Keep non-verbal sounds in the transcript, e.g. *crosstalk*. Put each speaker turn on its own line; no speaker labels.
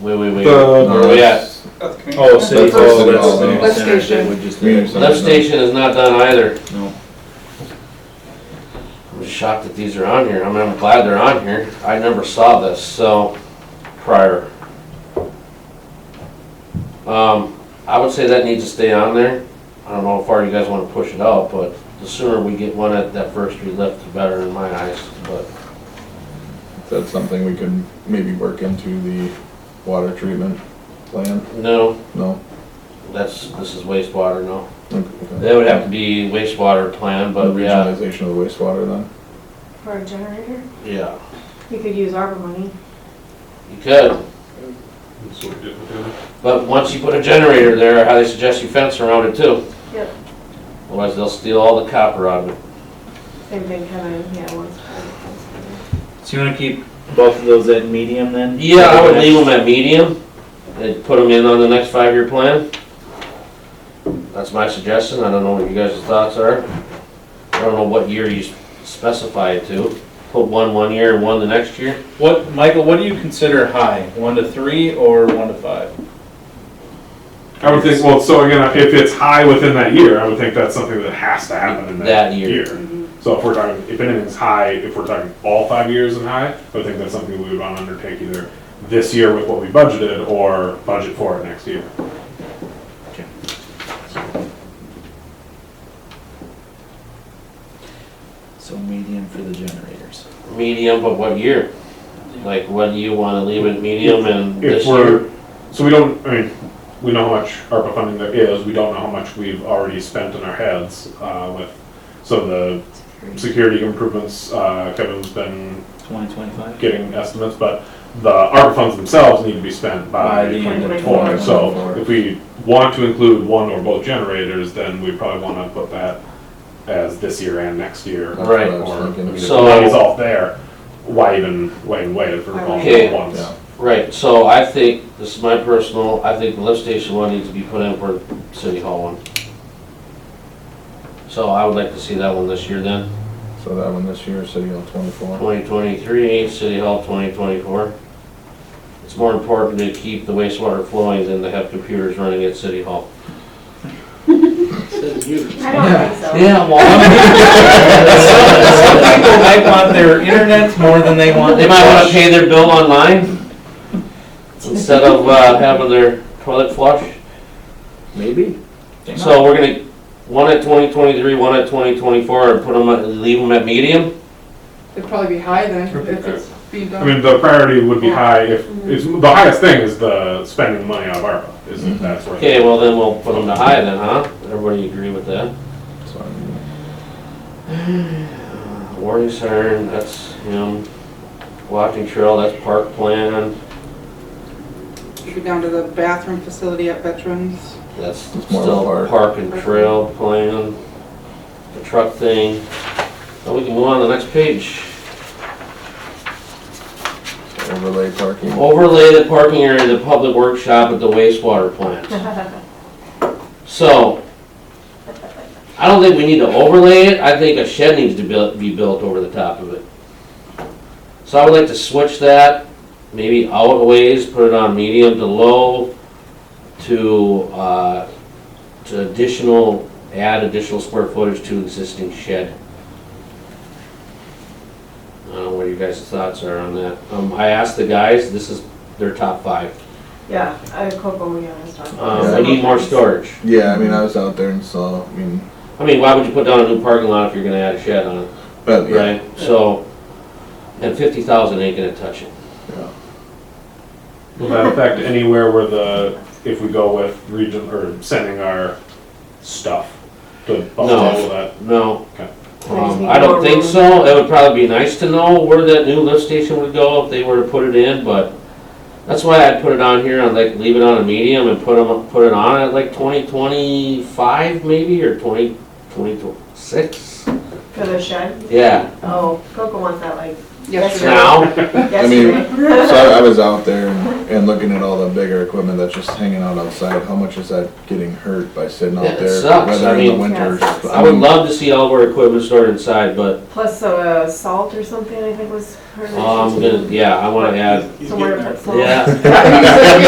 Wait, wait, wait,
The-
where we at?
That's community.
Oh, City
Lift
Hall. that's-
station. Lift
no.
Lift
Center, they
station.
would just-
Community center.
Lift station is not done either.
No.
I'm shocked that these are on here. I mean, I'm glad they're on here. I never saw this, so, prior. Um, I would say that needs to stay on there. I don't know how far you guys wanna push it out, but the sooner we get one at that first street lift, the better in my eyes, but.
That's something we could maybe work into the water treatment plan?
No,
No?
that's, this is wastewater, no.
Okay.
That would have to be wastewater plan,
The
but yeah,
regionalization of the wastewater then?
For a generator?
yeah,
You could use ARPA money.
you could.
That's what we did with the other.
But once you put a generator there, how they suggest you fence around it too.
Yep.
Otherwise, they'll steal all the copper out of it.
Same thing kind of, yeah, once. once-
So you want to keep both of those at medium then?
Yeah, I would leave them at medium, and put them in on the next five-year plan. That's my suggestion, I don't know what you guys' thoughts are. I don't know what year you specify it to, put one one year and one the next year.
What, Michael? What do you consider high? One to three or one to five?
I would think, well, so again, if it's high within that year, I would think that's something that has to happen in that
That year.
year. So if we're talking, if anything's high, if we're talking all five years and high, I would think that's something we would want to undertake either this year with what we budgeted or budget for it next year.
So medium for the generators.
Medium, but what year? Like, what do you wanna leave it medium and this
If
year?
we're, so we don't, I mean, we know how much ARPA funding there is, we don't know how much we've already spent in our heads uh, with, so the security improvements, uh, Kevin's been
Twenty twenty-five.
getting estimates, but the ARPA funds themselves need to be spent
By
by
the
twenty
end
of
twenty-four.
2024.
So if we want to include one or both generators, then we probably wanna put that as this year and next year.
That's what I
Right,
was
Or, I
thinking.
mean, if the
So-
money's all there, why even, why even wait for all
Okay.
the ones?
Yeah.
Right, so I think, this is my personal, I think the lift station one needs to be put in for City Hall one. So I would like to see that one this year then,
So that one this year, City Hall twenty-four?
twenty twenty-three, City Hall twenty twenty-four. It's more important to keep the wastewater flowing than to have computers running at City Hall.
I don't think so.
Yeah, well.
Some people might want their internet more than they want.
*laughs* They might wanna pay their bill online instead of uh, having their toilet flush.
Maybe.
So we're gonna, one at twenty twenty-three, one at twenty twenty-four, and put them, at- leave them at medium?
It'd probably be high then, if it's being
I
done.
mean, the priority would be high if, is, the highest thing is the spending money out of ARPA, is
Mm-hmm.
if that's where.
Okay, well then we'll put them to high then, huh? Everybody agree with that? Warning siren, that's, you know, walking trail, that's park plan,
You go down to the bathroom facility at Veterans.
that's
It's more of a
still
park.
park and trail plan, the truck thing. Now we can move on to the next page.
Overlay parking.
Overlay the parking area, of the public workshop at the wastewater plant. So, I don't think we need to overlay it, I think a shed needs to buil- be built over the top of it. So I would like to switch that, maybe out a ways, put it on medium to low, to, uh, to additional, add additional square footage to existing shed. I don't know what your guys' thoughts are on that. Um, I asked the guys, this is their top five.
*laughs* Yeah, I, Coco, yeah, that's not.
Um, we need more storage.
Yeah, I mean, I was out there and saw, I mean,
I mean, why would you put down a new parking lot if you're gonna add a shed on it,
but yeah,
right? So, and fifty thousand ain't gonna touch it.
Will that affect anywhere where the, if we go with region, or sending our stuff to Buffalo, will that?
No.
Okay.
Um, I don't think so. It would probably be nice to know where that new lift station would go if they were to put it in, but that's why I'd put it on here, I'd like leave it on a medium and put 'em- put it on at like twenty twenty-five maybe, or twenty, twenty-six?
For the shed?
Yeah,
Oh, Coco wants that like
yesterday.
Now,
I mean, so I, I was out there and- and looking at all the bigger equipment that's just hanging out outside, how much is that getting hurt by sitting
Yeah,
out
it
there?
sucks. I
Whether in the
mean-
winter.
Yeah, it sucks.
I would
mean,
love to see all of our equipment stored inside, but
Plus uh, salt or something, I think was. her
Oh, um, I'm
issue. *laughs*
gonna, yeah, I wanna add,
Somewhere to put salt.
yeah.